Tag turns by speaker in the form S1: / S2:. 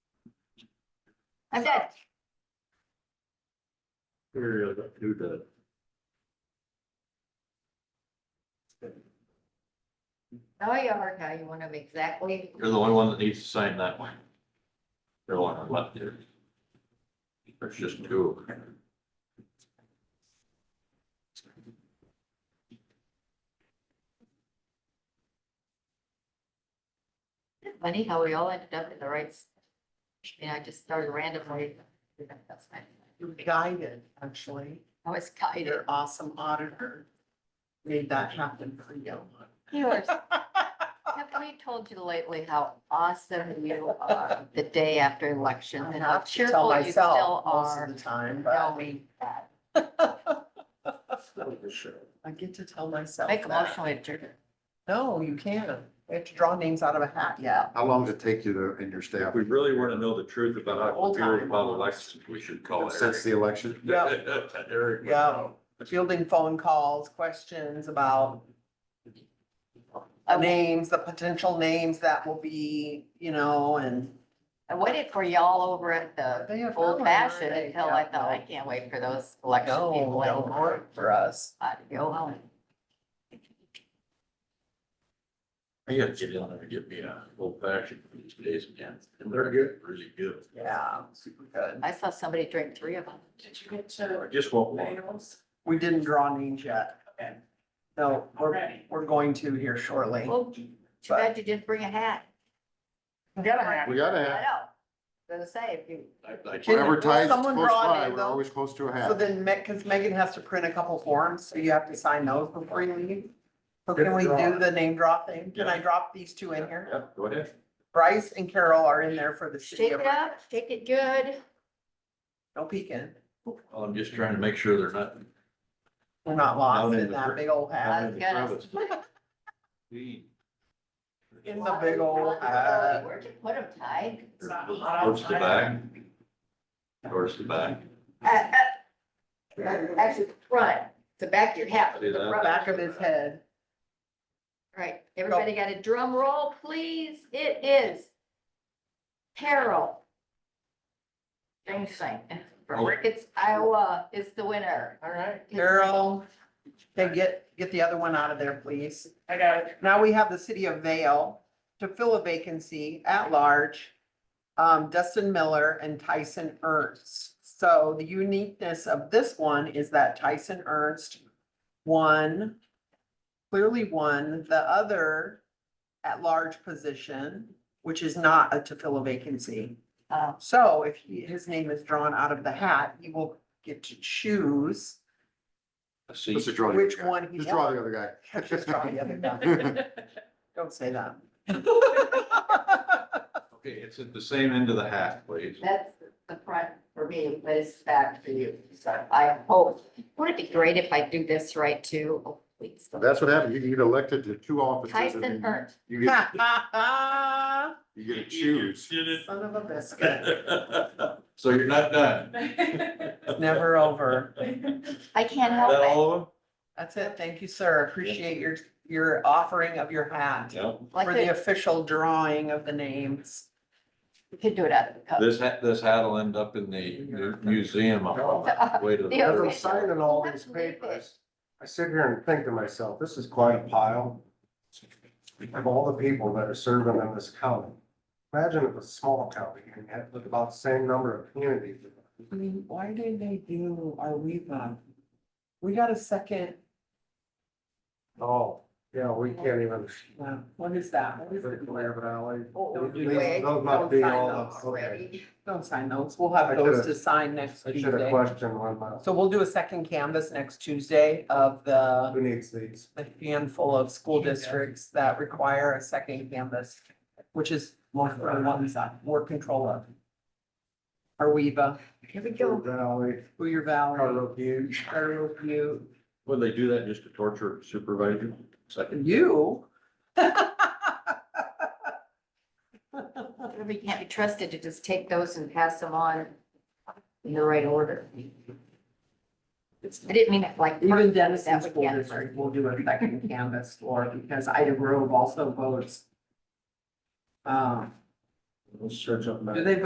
S1: I'm dead.
S2: Here, do the.
S1: Oh, you are now. You want them exactly.
S2: You're the only one that needs to sign that one. You're the one that left there. There's just two.
S1: Funny how we all ended up in the right. s- You know, I just started randomly. That's fine.
S3: You're guided, actually.
S1: I was
S3: Your
S1: guided.
S3: awesome auditor made that happen for you.
S1: You are. Have we told you lately how awesome you are the day after election
S3: I
S1: and how
S3: have to tell
S1: cheerful you still
S3: myself most
S1: are?
S3: of the time,
S1: No,
S3: but
S1: we,
S3: I get to tell myself
S1: make a
S3: that.
S1: motion with your,
S3: No, you can't. We have to draw names out of a hat yet.
S4: How long does it take you to, and your staff,
S2: If we really want to know the truth about how we feel about elections, we should call
S4: since the
S2: Eric. uh,
S4: election?
S2: Eric.
S3: Yeah, fielding phone calls, questions about
S1: I wa-
S3: names, the potential names that will be, you know, and.
S1: I waited for y'all over at the
S3: They have
S1: old
S3: no
S1: fashioned
S3: idea.
S1: until I thought, I
S3: No,
S1: can't wait for those election people.
S3: No, don't work for us.
S1: I had to go home.
S2: I gotta get in there and get me a old fashioned for these days again.
S4: They're good.
S2: Really good.
S3: Yeah, super good.
S1: I saw somebody drink three of them.
S5: Did you get to
S2: I just want one.
S5: Plato's?
S3: We didn't draw names yet.
S5: Okay.
S3: No, we're,
S5: Already.
S3: we're going to here shortly.
S1: Well, too bad you didn't bring a hat.
S3: Got a hat.
S4: We gotta
S1: I
S4: have,
S1: know. Gonna say, if you,
S2: I- I can't-
S4: whatever ties us
S3: Someone
S4: close
S3: draw a
S4: by,
S3: name,
S4: we're
S3: though.
S4: always close to a
S3: So
S4: half.
S3: then, because Megan has to print a couple forms, so you have to sign those before you leave. So can we
S4: Good
S3: do
S4: draw.
S3: the name drop thing? Can I
S2: Yeah.
S3: drop these two in here?
S2: Yeah, go ahead.
S3: Bryce and Carol are in there for the
S1: shake
S3: city. of-
S1: it up, shake it good.
S3: No peeking.
S2: Well, I'm just trying to make sure they're not.
S3: We're not lost
S2: Down in
S3: in
S2: the
S3: that
S2: gr-
S3: big old
S2: down
S3: hat.
S2: in the
S1: Got
S2: crevice. Gee.
S3: In the big old hat.
S1: Where'd you put them, Ty?
S5: It's not hot
S2: Towards the back.
S5: outside.
S2: Towards the back.
S1: Uh, uh, Actually, the front, the back of your hat.
S2: See that?
S3: Back of his head.
S1: Right, everybody got a drum roll, please? It is Carol. Jameson from
S2: Oh.
S1: Ricketts, Iowa is the winner.
S3: All right.
S1: His-
S3: Carol, okay, get, get the other one out of there, please.
S5: I got it.
S3: Now we have the city of Vale to fill a vacancy at large. um, Dustin Miller and Tyson Ernst. So the uniqueness of this one is that Tyson Ernst won, clearly won the other at-large position, which is not a to fill a vacancy.
S1: Uh,
S3: So if he- his name is drawn out of the hat, he will get to choose
S2: I see.
S4: Let's just draw the other
S3: which
S4: guy.
S3: one he
S4: Just draw
S3: wants.
S4: the other
S3: Just draw the other guy.
S4: guy.
S3: Don't say that.
S2: Okay, it's at the same end of the hat, please.
S1: That's the front for me, but it's the back for you. So I hope, wouldn't it be great if I do this right too? Oh, please.
S4: That's what happens. You get elected to two offices and
S1: Tyson
S4: then
S1: Ernst.
S4: you you get,
S3: Son
S4: you get to choose.
S3: of a biscuit.
S2: So you're not done.
S3: It's never over.
S1: I can't
S2: Is that
S1: help
S2: all of
S3: That's it. Thank you, sir. Appreciate your, your offering of your hat
S2: them?
S1: it.
S3: for
S1: Like,
S3: the
S1: you
S3: official drawing of the names.
S1: could do it out of the cup.
S2: This hat, this hat will end up in the mu- museum. on the Way to
S1: Yeah.
S2: the.
S4: As I'm signing all these papers, I sit here and think to myself, this is quite a pile of all the people that are serving in this county. Imagine if a small county and had about the same number of communities.
S3: I mean, why did they do our Riva? We got a second,
S4: Oh, yeah, we can't even.
S3: uh, what is that? What is it?
S4: Clare Valley.
S3: Oh,
S4: These- Those must be all, of- okay.
S3: Don't sign those. We'll have
S4: I
S3: those
S4: should've-
S3: to sign next
S4: I should have
S3: Tuesday.
S4: questioned one, but
S3: So we'll do a second canvas next Tuesday of the
S4: who needs these?
S3: the handful of school districts that require a second canvas, which is more for one side, more control of. uh, Arweva,
S1: Here we
S4: Clare
S1: go.
S4: Valley,
S3: Booyer Valley,
S4: Carlo Butte.
S3: Arrow View,
S2: Would they do that just to torture supervisor? Second.
S3: you.
S1: Everybody can't be trusted to just take those and pass them on in the right order. I didn't mean it like.
S3: Even Denison
S1: That we
S3: School
S1: can't.
S3: District will do a second canvas for, because Ida Grove also votes. Um,
S4: Let's search up. that.
S3: do they